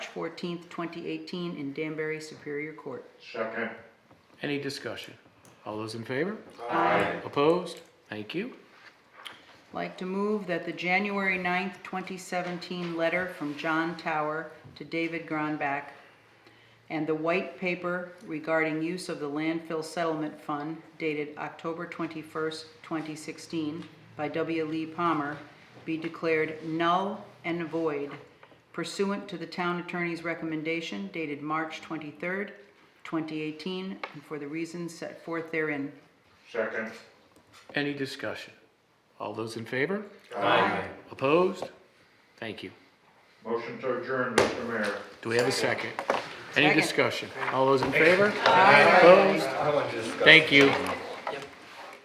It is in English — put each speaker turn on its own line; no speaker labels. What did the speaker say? fourteenth, twenty eighteen in Danbury Superior Court.
Second.
Any discussion? All those in favor?
Aye.
Opposed? Thank you.
Like to move that the January 9th, twenty seventeen letter from John Tower to David Gronbach and the white paper regarding use of the landfill settlement fund dated October twenty-first, twenty sixteen by W. Lee Palmer be declared null and void pursuant to the town attorney's recommendation dated March twenty-third, twenty eighteen, and for the reasons set forth therein.
Second.
Any discussion? All those in favor?
Aye.
Opposed? Thank you.
Motion to adjourn, Mr. Mayor.
Do we have a second? Any
Second.
discussion? All those in favor? Opposed? Thank you.